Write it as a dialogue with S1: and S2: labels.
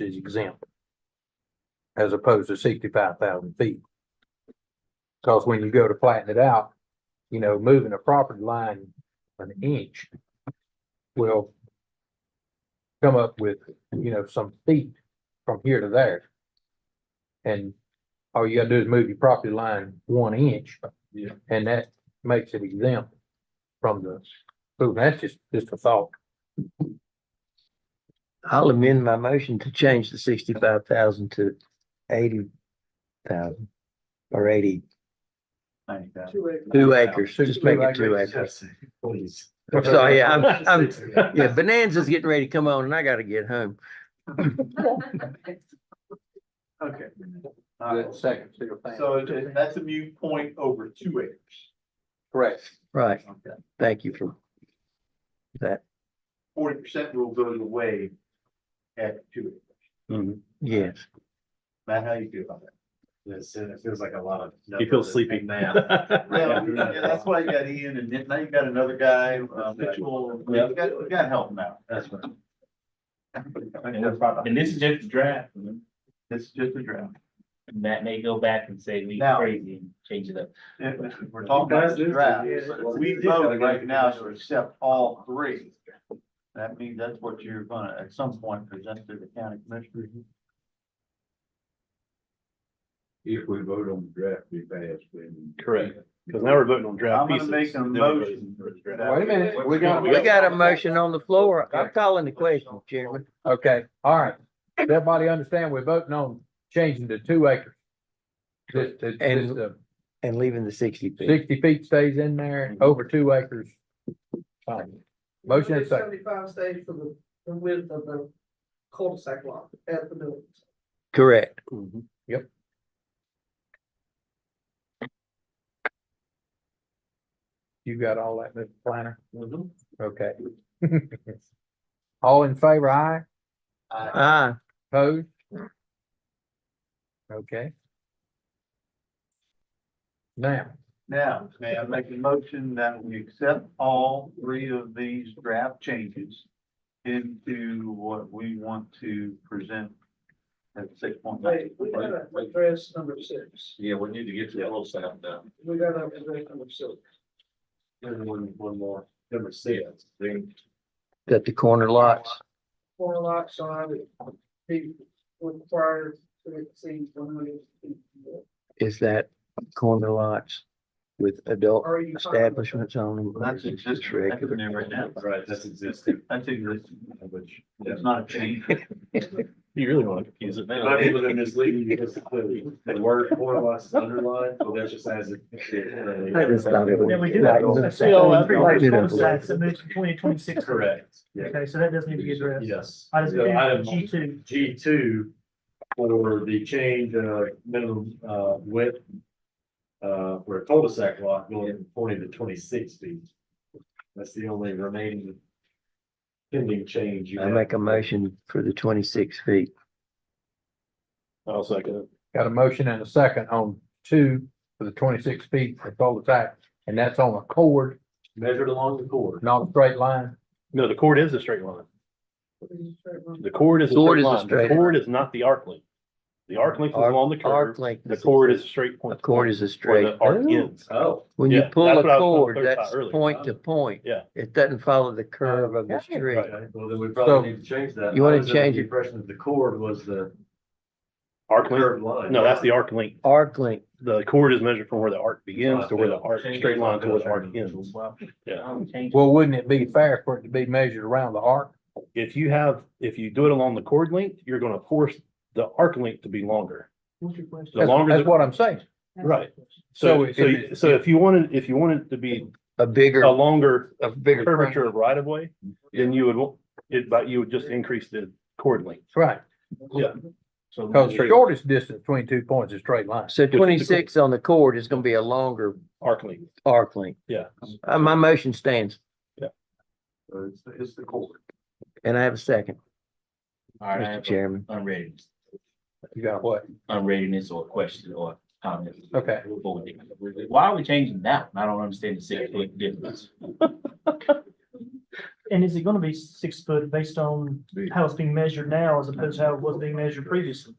S1: is exempt. As opposed to sixty-five thousand feet. Cause when you go to flatten it out, you know, moving a property line an inch will come up with, you know, some feet from here to there. And all you gotta do is move your property line one inch.
S2: Yeah.
S1: And that makes it exempt from the, so that's just, just a thought.
S3: I'll amend my motion to change the sixty-five thousand to eighty thousand or eighty, two acres, just make it two acres.
S2: Please.
S3: I'm sorry, yeah, I'm, I'm, yeah, Bonanza's getting ready to come on and I gotta get home.
S2: Okay. All right.
S1: That second still stands.
S2: So it- it- that's a mute point over two acres.
S1: Correct.
S3: Right,
S2: Okay.
S3: thank you for that.
S2: Forty percent rule goes away at two acres.
S3: Yes,
S2: Matt, how you feel about that?
S4: Yes, and it feels like a lot of.
S5: You feel sleepy now.
S2: Well, yeah, that's why you got Ian and then- now you got another guy, uh, Mitchell, we got, we got help now.
S4: That's right.
S6: And this is just a draft, and
S2: This is just a draft.
S6: that may go back and say we
S2: Now-
S6: crazy and change it up.
S2: If We're talking about the draft. What We vote right now is to accept all three. That means that's what you're gonna, at some point, present to the county commissioner.
S1: Mhm.
S4: If we vote on the draft, we pass, then.
S5: Correct. Because now we're voting on
S2: I'm
S5: draft
S2: gonna
S5: pieces.
S2: make a
S5: then we're
S2: motion.
S5: voting for the draft.
S1: Wait a minute, we got.
S3: we got a motion on the floor. I'm calling the question, Chairman.
S1: Okay, all right. Does everybody understand we're voting on changing to two acres? Just, to-
S3: And-
S1: just, uh,
S3: And leaving the sixty feet.
S1: sixty feet stays in there, over two acres. Fine. Motion and second.
S7: Seventy-five stays for the, the width of the cul-de-sac lot at the middle.
S3: Correct.
S1: You got all that, Mr. Planner? Okay. All in favor, aye?
S3: Ah,
S1: Opposed? Okay. Now,
S2: Now, may I make a motion that we accept all three of these draft changes into what we want to present at six point
S7: Wait,
S2: eight?
S7: we gotta address number six.
S4: Yeah, we need to get to the whole sound down.
S7: We gotta address number six.
S4: One, one more, number six, then
S3: got the corner lots.
S7: Corner lot size, be required to exceed one hundred feet.
S3: Is that corner lots with adult
S7: Are you?
S3: establishments on them? or is
S2: That's
S3: it just
S2: existing, that's in
S3: regular?
S2: there right now.
S4: right, that's existing,
S2: That's existing,
S4: which.
S2: it's not a change.
S5: You really want to confuse it now.
S4: I'm able to mislead you because the the word four lots is underlined, but that's just as. That
S3: That is not it.
S8: Yeah, we do
S3: Right.
S8: have
S3: Yeah.
S8: a CO
S3: Yeah.
S8: of the
S3: Yeah.
S8: cul-de-sac submitted in twenty twenty-six.
S4: Correct. Yeah.
S8: Okay, so that does need to be addressed.
S4: Yes.
S8: I just,
S4: So item-
S8: G two,
S4: G two for the change of minimum uh width. Uh, for a cul-de-sac lot going from forty to twenty-six feet. That's the only remaining. Pending change. you
S3: I
S4: have.
S3: make a motion for the twenty-six feet.
S5: I'll second
S1: got a motion and a second on two for the twenty-six feet for cul-de-sac, and that's on a cord,
S4: Measured along the cord.
S1: not a straight line.
S5: it. No, the cord is a straight line. The cord is a
S3: Cord
S5: straight
S3: is a
S5: line. The
S3: straight
S5: cord is not the arc length. The arc length is
S3: Arc-
S5: along the
S3: Arc
S5: curve.
S3: length.
S5: The cord is a straight
S3: A
S5: point.
S3: cord is a
S5: Where
S3: straight.
S5: the arc
S3: Ooh.
S5: ends.
S4: Oh.
S3: When you
S5: Yeah,
S3: pull
S5: that's
S3: a
S5: what I was gonna
S3: cord,
S5: clarify
S3: that's
S5: earlier.
S3: point to point.
S5: Yeah.
S3: It doesn't follow the curve of the street.
S4: Okay, Well, then we probably need to change that.
S3: You wanna
S4: I was under the
S3: change it.
S4: Impression that the cord was the
S5: Arc length.
S4: curved line.
S5: No, that's the arc length.
S3: Arc length,
S5: The cord is measured from where the arc begins to where the arc,
S4: Change
S5: straight line to where the arc
S4: it.
S5: ends.
S6: Um, change-
S1: Well, wouldn't it be fair for it to be measured around the arc?
S5: If you have, if you do it along the cord length, you're gonna force the arc length to be longer.
S7: What's your question?
S5: The
S1: That's,
S5: longer,
S1: that's
S5: the-
S1: what I'm saying.
S5: right.
S1: So
S5: So,
S1: if
S5: so,
S1: it-
S5: so if you wanted, if you wanted to be
S3: a bigger,
S5: a longer
S3: a bigger.
S5: curvature of right of way, then you would, want- it, but you would just increase the cord length.
S1: Right,
S5: So
S1: because the shortest distance between two points is straight line.
S3: So
S5: is the-
S3: twenty-six on the cord is gonna be a longer
S5: Arc length,
S3: arc length.
S5: yeah.
S3: Uh, my motion stands
S2: So It's, the- it's the cord.
S3: and I have a second,
S6: All right, I
S3: Mr.
S6: have
S3: Chairman.
S6: unread,
S1: You got what?
S6: unreadness or question or comment.
S1: Okay.
S6: Why are we changing that? one? I don't understand the six foot difference.
S7: And is it gonna be six foot based on how it's being measured now as opposed to how it was being measured previously?